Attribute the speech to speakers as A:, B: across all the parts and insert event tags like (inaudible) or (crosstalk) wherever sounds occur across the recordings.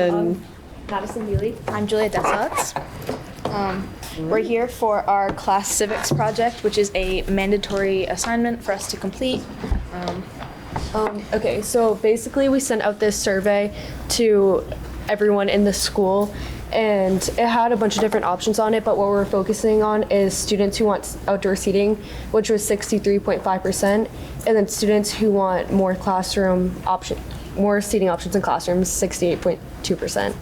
A: And
B: Madison Healy.
C: I'm Julia Dessarts. Um, we're here for our class civics project, which is a mandatory assignment for us to complete. Um,
B: Um, okay, so basically, we sent out this survey to everyone in the school, and it had a bunch of different options on it. But what we're focusing on is students who want s- outdoor seating, which was 63.5%, and then students who want more classroom option, more seating options in classrooms, 68.2%.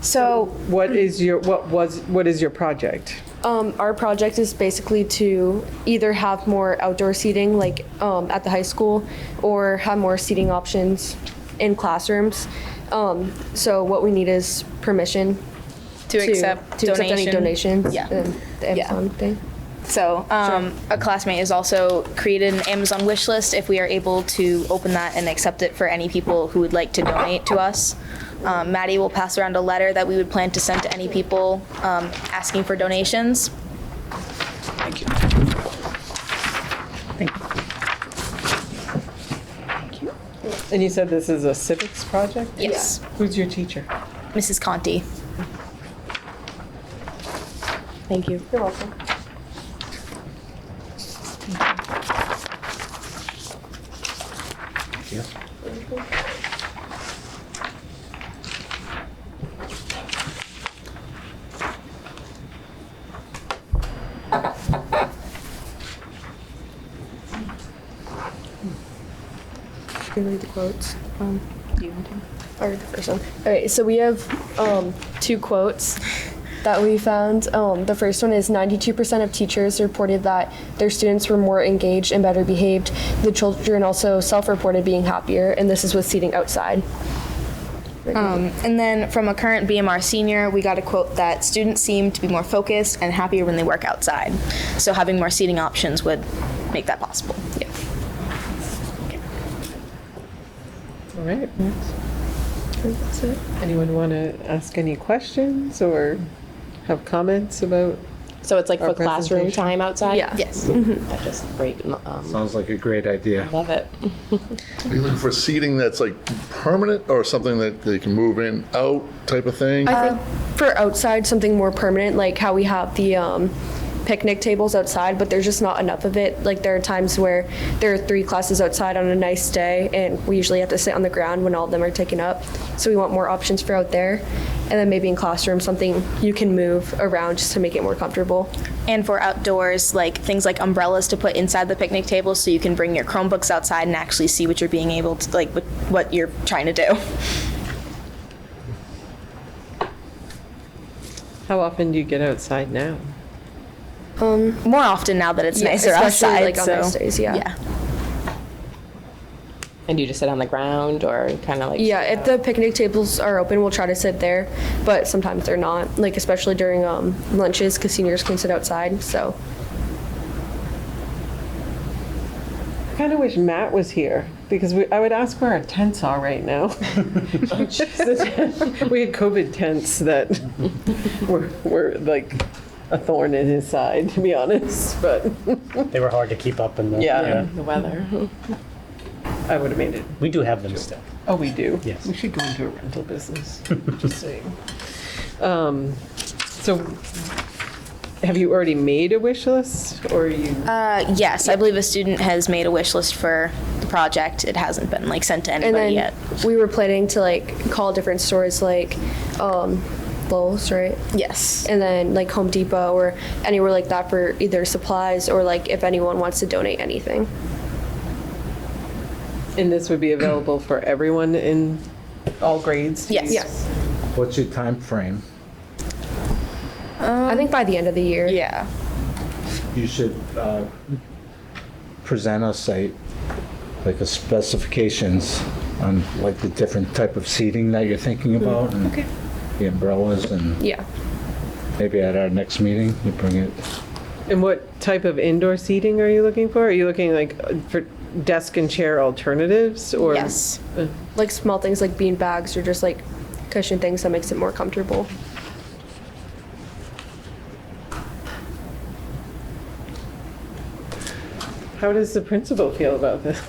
C: so
A: what is your, what was, what is your project?
B: Um, our project is basically to either have more outdoor seating, like um, at the high school, or have more seating options in classrooms. Um, so what we need is permission
C: to, accept
B: to accept any donations.
C: Yeah.
B: and the
C: Yeah.
B: Amazon thing.
C: So um, a classmate has also created an Amazon wish list if we are able to open that and accept it for any people who would like to donate to us. Um, Maddie will pass around a letter that we would plan to send to any people um, asking for donations.
A: And you said this is a civics project?
C: Yes,
A: Who's your teacher?
C: Mrs. Conti.
B: Thank you. You're welcome. Can you read the quotes? Um, or the first one. All right, so we have um, two quotes that we found. Um, the first one is 92% of teachers reported that their students were more engaged and better behaved. The children also self reported being happier, and this is with seating outside.
C: Um, and then from a current BMR senior, we got a quote that students seem to be more focused and happier when they work outside. So having more seating options would make that possible. Yeah.
A: All right. Anyone want to ask any questions or have comments about?
D: So it's like
A: Our
D: for classroom
A: presentation.
D: time outside?
B: Yeah.
C: Yes.
D: That's just great. Um,
E: Sounds like a great idea.
D: love it.
F: Are you looking for seating that's like permanent or something that they can move in, out type of thing?
B: I think for outside, something more permanent, like how we have the um, picnic tables outside, but there's just not enough of it. Like there are times where there are three classes outside on a nice day, and we usually have to sit on the ground when all of them are taken up. So we want more options for out there, and then maybe in classroom, something you can move around just to make it more comfortable.
C: And for outdoors, like things like umbrellas to put inside the picnic table so you can bring your Chromebooks outside and actually see what you're being able to, like what, what you're trying to do. (laughs)
A: How often do you get outside now?
C: More often now that it's
B: Yeah,
C: nicer
B: especially,
C: outside.
B: like, on
C: so
B: nice days, yeah.
D: And you just sit on the ground or kind of like?
B: Yeah, if the picnic tables are open, we'll try to sit there, but sometimes they're not. Like especially during um, lunches, because seniors can sit outside. So
A: I kind of wish Matt was here because we, I would ask where our tents are right now. We had COVID tents that were, were like a thorn in his side, to be honest, but
G: They were hard to keep up in the.
A: yeah,
D: The weather.
A: I would have made it
G: We do have them still.
A: Oh, we do?
G: Yes.
A: We should go into a rental business, just saying. Um, So, have you already made a wish list, or you,
C: Uh, yes, I believe a student has made a wish list for the project. It hasn't been like sent to
B: And
C: anybody
B: then
C: yet.
B: we were planning to like call different stores like um, Lowe's, right?
C: Yes.
B: And then like Home Depot or anywhere like that for either supplies or like if anyone wants to donate anything.
A: and this would be available for everyone in all grades? to
C: Yes.
A: use?
B: Yes.
E: What's your time frame?
B: I think by the end of the year.
C: Yeah.
E: You should uh, present us a, like a specifications on like the different type of seating that you're thinking about. and The umbrellas and
B: Yeah.
E: maybe at our next meeting, you bring it.
A: And what type of indoor seating are you looking for? Are you looking like uh, for desk and chair alternatives, or?
C: Yes.
B: Like small things like bean bags or just like cushion things that makes it more comfortable.
A: How does the principal feel about this?